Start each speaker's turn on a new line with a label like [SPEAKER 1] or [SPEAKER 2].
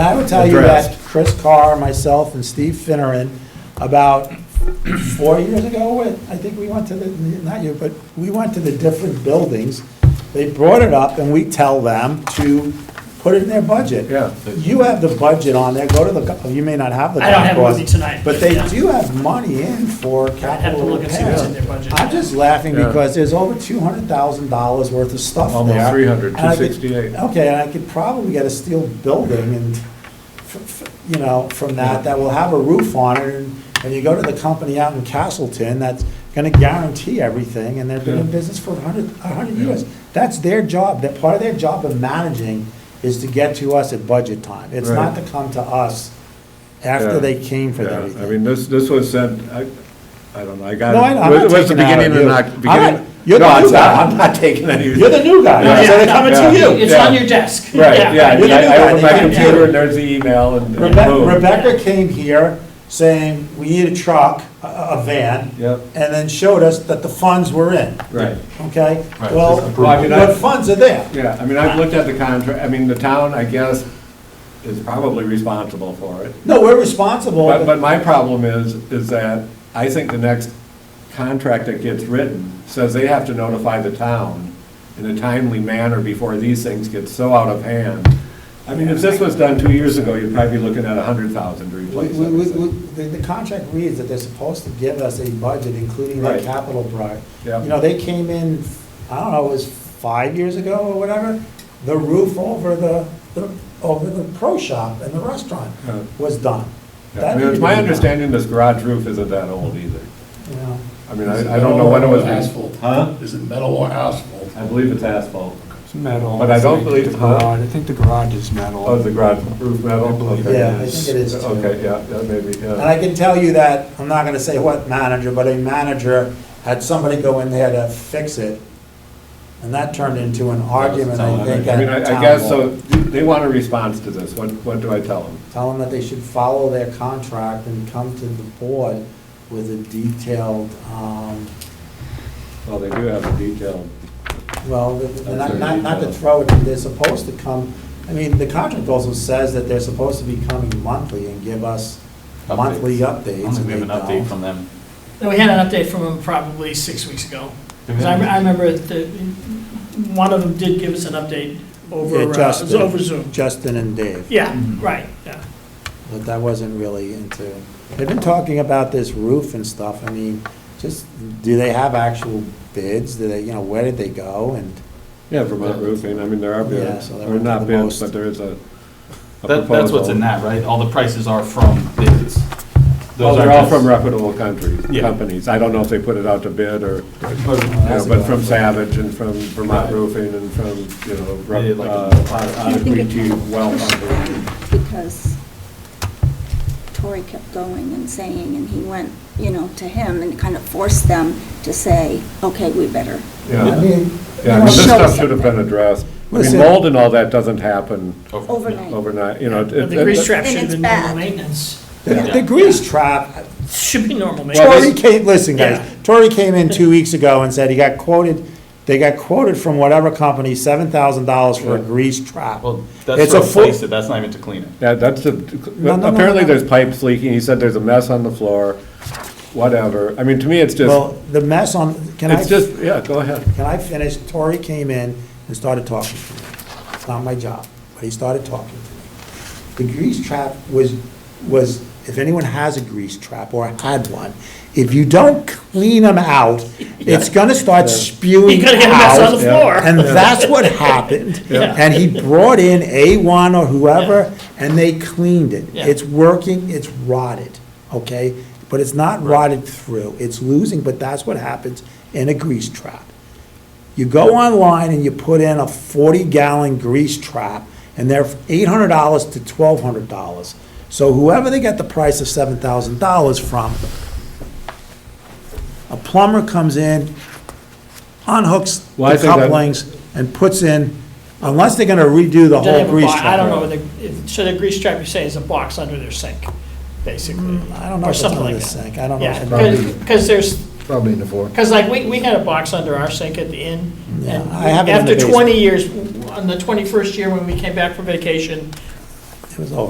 [SPEAKER 1] I would tell you that
[SPEAKER 2] Addressed.
[SPEAKER 1] Chris Carr, myself, and Steve Finneran, about four years ago, when- I think we went to the, not you, but we went to the different buildings. They brought it up, and we tell them to put it in their budget.
[SPEAKER 2] Yeah.
[SPEAKER 1] You have the budget on there, go to the, go- you may not have the.
[SPEAKER 3] I don't have it with
[SPEAKER 1] cost,
[SPEAKER 3] me tonight,
[SPEAKER 1] But
[SPEAKER 3] but
[SPEAKER 1] they
[SPEAKER 3] yeah.
[SPEAKER 1] do have money in for
[SPEAKER 3] I'd have to
[SPEAKER 1] capital
[SPEAKER 3] look and see what's in
[SPEAKER 1] repairs.
[SPEAKER 3] their budget.
[SPEAKER 1] I'm just laughing
[SPEAKER 2] Yeah.
[SPEAKER 1] because there's over two hundred thousand dollars worth of stuff there.
[SPEAKER 2] Almost 300,
[SPEAKER 1] And I could-
[SPEAKER 2] 268.
[SPEAKER 1] Okay, and I could probably get a steel building and, f- f- you know, from that, that will have a roof on it. And and you go to the company out in Castleton that's gonna guarantee everything, and they've been in
[SPEAKER 2] Yeah.
[SPEAKER 1] business for a hundred, a hundred
[SPEAKER 2] Yeah.
[SPEAKER 1] years. That's their job, that part of their job of managing is to get to us at budget time. It's not to
[SPEAKER 2] Right.
[SPEAKER 1] come to us after they came for
[SPEAKER 2] Yeah,
[SPEAKER 1] everything.
[SPEAKER 2] I mean, this, this was sent, I, I don't know, I got.
[SPEAKER 1] No,
[SPEAKER 2] it.
[SPEAKER 1] I know, I'm not
[SPEAKER 2] It was the
[SPEAKER 1] taking it out of
[SPEAKER 2] beginning of
[SPEAKER 1] you.
[SPEAKER 2] Oc-
[SPEAKER 1] I'm
[SPEAKER 2] beginning-
[SPEAKER 1] not- you're the
[SPEAKER 2] No,
[SPEAKER 1] new
[SPEAKER 2] it's not-
[SPEAKER 1] guy.
[SPEAKER 2] I'm not taking any.
[SPEAKER 1] You're the new guy,
[SPEAKER 2] Yeah.
[SPEAKER 1] so they're coming to
[SPEAKER 2] Yeah.
[SPEAKER 1] you.
[SPEAKER 3] It's
[SPEAKER 2] Yeah.
[SPEAKER 3] on your desk.
[SPEAKER 2] Right, yeah,
[SPEAKER 1] You're the new
[SPEAKER 2] I I
[SPEAKER 1] guy.
[SPEAKER 2] opened my
[SPEAKER 1] Yeah.
[SPEAKER 2] computer and there's the email and. and
[SPEAKER 1] Rebecca,
[SPEAKER 2] boom.
[SPEAKER 1] Rebecca came here saying, we need a truck, a, a van.
[SPEAKER 2] Yep.
[SPEAKER 1] And then showed us that the funds were in,
[SPEAKER 2] Right,
[SPEAKER 1] okay?
[SPEAKER 4] Right,
[SPEAKER 1] Well,
[SPEAKER 4] just approve.
[SPEAKER 2] Well, I mean, I-
[SPEAKER 1] what funds are there?
[SPEAKER 2] yeah, I mean, I've looked at the contract, I mean, the town, I guess, is probably responsible for it.
[SPEAKER 1] No, we're responsible.
[SPEAKER 2] But, but my problem is, is that I think the next contract that gets written says they have to notify the town in a timely manner before these things get so out of hand. I mean, if this was done two years ago, you'd probably be looking at a hundred thousand to
[SPEAKER 1] We-
[SPEAKER 2] replace
[SPEAKER 1] we- we- we-
[SPEAKER 2] everything.
[SPEAKER 1] The, the contract reads that they're supposed to give us a budget, including their
[SPEAKER 2] Right.
[SPEAKER 1] capital part.
[SPEAKER 2] Yeah.
[SPEAKER 1] You know, they came in, I don't know, it was five years ago or whatever, the roof over the, the- over the pro shop and the restaurant
[SPEAKER 2] Yeah.
[SPEAKER 1] was done.
[SPEAKER 2] Yeah,
[SPEAKER 1] That
[SPEAKER 2] I mean,
[SPEAKER 1] needed
[SPEAKER 2] it's
[SPEAKER 1] to
[SPEAKER 2] my
[SPEAKER 1] be done,
[SPEAKER 2] understanding this garage roof isn't that old either.
[SPEAKER 1] you know.
[SPEAKER 2] I mean, I, I don't know when it was.
[SPEAKER 4] Asphalt.
[SPEAKER 2] Huh?
[SPEAKER 4] Is it metal or asphalt?
[SPEAKER 2] I believe it's asphalt.
[SPEAKER 5] It's metal.
[SPEAKER 2] But I don't believe-
[SPEAKER 5] The garage, I think the garage is metal.
[SPEAKER 2] Oh, the garage roof metal?
[SPEAKER 5] I believe
[SPEAKER 2] Okay.
[SPEAKER 5] it
[SPEAKER 1] Yeah, I
[SPEAKER 5] is.
[SPEAKER 1] think it is too.
[SPEAKER 2] Okay, yeah, yeah, maybe,
[SPEAKER 1] And
[SPEAKER 2] yeah.
[SPEAKER 1] I can tell you that, I'm not gonna say what manager, but a manager had somebody go in there to fix it, and that turned into an argument, I think,
[SPEAKER 2] I mean,
[SPEAKER 1] at
[SPEAKER 2] I I
[SPEAKER 1] town
[SPEAKER 2] guess,
[SPEAKER 1] hall.
[SPEAKER 2] so, they want a response to this, what, what do I tell them?
[SPEAKER 1] Tell them that they should follow their contract and come to the board with a detailed, um,
[SPEAKER 2] Well, they do have a detailed,
[SPEAKER 1] well, they're not, not, not to
[SPEAKER 2] That's
[SPEAKER 1] throw it, they're supposed to come, I mean, the contract also says that they're supposed to be coming monthly and give us monthly
[SPEAKER 4] I
[SPEAKER 1] updates.
[SPEAKER 4] don't think
[SPEAKER 1] and
[SPEAKER 4] we
[SPEAKER 1] they
[SPEAKER 4] have an update
[SPEAKER 1] don't.
[SPEAKER 4] from them.
[SPEAKER 3] No, We had an update from them probably six weeks ago.
[SPEAKER 2] Mm-hmm.
[SPEAKER 3] 'Cause I, I remember that one of them did give us an update over,
[SPEAKER 1] Yeah,
[SPEAKER 3] uh, it was
[SPEAKER 1] Justin.
[SPEAKER 3] over Zoom.
[SPEAKER 1] Justin and Dave.
[SPEAKER 3] Yeah,
[SPEAKER 2] Mm-hmm.
[SPEAKER 3] right, yeah.
[SPEAKER 1] But that wasn't really into, they've been talking about this roof and stuff, I mean, just, do they have actual bids, do they, you know, where did they go, and,
[SPEAKER 2] yeah, Vermont roofing, I mean, there are
[SPEAKER 1] Yeah,
[SPEAKER 2] bids,
[SPEAKER 1] so they
[SPEAKER 2] or
[SPEAKER 1] went to
[SPEAKER 2] not
[SPEAKER 1] the
[SPEAKER 2] bids,
[SPEAKER 1] most-
[SPEAKER 2] but there is a a
[SPEAKER 4] That, that's what's
[SPEAKER 2] proposal.
[SPEAKER 4] in that, right? All the prices are from bids.
[SPEAKER 2] Well,
[SPEAKER 4] Those
[SPEAKER 2] Oh, they're
[SPEAKER 4] aren't
[SPEAKER 2] all
[SPEAKER 4] just-
[SPEAKER 2] from reputable countries,
[SPEAKER 4] Yeah.
[SPEAKER 2] companies, I don't know if they put it out to bid or, you know,
[SPEAKER 4] But-
[SPEAKER 2] but from Savage and from Vermont
[SPEAKER 4] Right.
[SPEAKER 2] Roofing and from, you know,
[SPEAKER 4] Yeah,
[SPEAKER 2] Rep-
[SPEAKER 4] like-
[SPEAKER 2] uh,
[SPEAKER 6] Do you think it-
[SPEAKER 2] Ottawa, well, Ottawa.
[SPEAKER 6] because Tori kept going and saying, and he went, you know, to him and kind of forced them to say, okay, we better.
[SPEAKER 1] I
[SPEAKER 2] yeah.
[SPEAKER 1] mean.
[SPEAKER 2] Yeah, I mean, this
[SPEAKER 6] Show
[SPEAKER 2] stuff
[SPEAKER 6] something.
[SPEAKER 2] should have been addressed. I mean,
[SPEAKER 1] Listen.
[SPEAKER 2] mold and all that doesn't happen
[SPEAKER 6] Overnight.
[SPEAKER 2] overnight, you know. it-
[SPEAKER 3] But the
[SPEAKER 2] it-
[SPEAKER 3] grease trap should have
[SPEAKER 6] And
[SPEAKER 3] been
[SPEAKER 6] it's
[SPEAKER 3] normal
[SPEAKER 6] bad.
[SPEAKER 3] maintenance.
[SPEAKER 1] The
[SPEAKER 4] Yeah.
[SPEAKER 1] the grease trap,
[SPEAKER 3] Should be normal maintenance.
[SPEAKER 1] Tori came, listen,
[SPEAKER 3] Yeah.
[SPEAKER 1] guys, Tori came in two weeks ago and said he got quoted, they got quoted from whatever company, seven thousand dollars for a
[SPEAKER 2] Yeah.
[SPEAKER 1] grease trap.
[SPEAKER 4] Well,
[SPEAKER 1] It's
[SPEAKER 4] that's
[SPEAKER 1] a
[SPEAKER 4] to
[SPEAKER 1] full-
[SPEAKER 4] replace it, that's not even to clean it.
[SPEAKER 2] Yeah, that's, a-
[SPEAKER 1] no, no,
[SPEAKER 2] apparently
[SPEAKER 1] no.
[SPEAKER 2] there's pipes leaking, he said there's a mess on the floor, whatever. I mean, to me, it's
[SPEAKER 1] Well,
[SPEAKER 2] just,
[SPEAKER 1] the mess on, can I?
[SPEAKER 2] it's just, yeah, go ahead.
[SPEAKER 1] Can I finish? Tori came in and started talking to me. It's not my job, but he started talking to me. The grease trap was, was, if anyone has a grease trap or had one, if you don't clean them out, it's gonna start spewing out.
[SPEAKER 3] You gotta get a mess on the floor.
[SPEAKER 1] And that's what happened.
[SPEAKER 2] Yeah.
[SPEAKER 1] And he brought in A1 or whoever, and they cleaned it.
[SPEAKER 3] Yeah.
[SPEAKER 1] It's working, it's rotted, okay? But it's not rotted through, it's losing, but that's what happens in a grease trap. You go online and you put in a 40-gallon grease trap, and they're $800 to $1,200. So whoever they got the price of $7,000 from, a plumber comes in, unhooks
[SPEAKER 2] Well, I
[SPEAKER 1] the
[SPEAKER 2] think that-
[SPEAKER 1] couplings, and puts in, unless they're gonna redo the
[SPEAKER 3] Then they
[SPEAKER 1] whole
[SPEAKER 3] have a
[SPEAKER 1] grease
[SPEAKER 3] bo-
[SPEAKER 1] trap.
[SPEAKER 3] I don't know, whether- if- so the grease trap you say is a box under their sink, basically.
[SPEAKER 2] Mm-hmm.
[SPEAKER 1] I don't know
[SPEAKER 3] or
[SPEAKER 1] if it's
[SPEAKER 3] something
[SPEAKER 1] under
[SPEAKER 3] like
[SPEAKER 1] the
[SPEAKER 3] that.
[SPEAKER 1] sink. I don't know if
[SPEAKER 3] Yeah,
[SPEAKER 1] it's
[SPEAKER 3] because, because there's,
[SPEAKER 7] Probably in the four.
[SPEAKER 3] Because like, we, we had a box under our sink at the inn.
[SPEAKER 1] Yeah,
[SPEAKER 3] and
[SPEAKER 1] I have it in the
[SPEAKER 3] After
[SPEAKER 1] basement.
[SPEAKER 3] 20 years, on the 21st year when we came back from vacation,
[SPEAKER 1] It was over.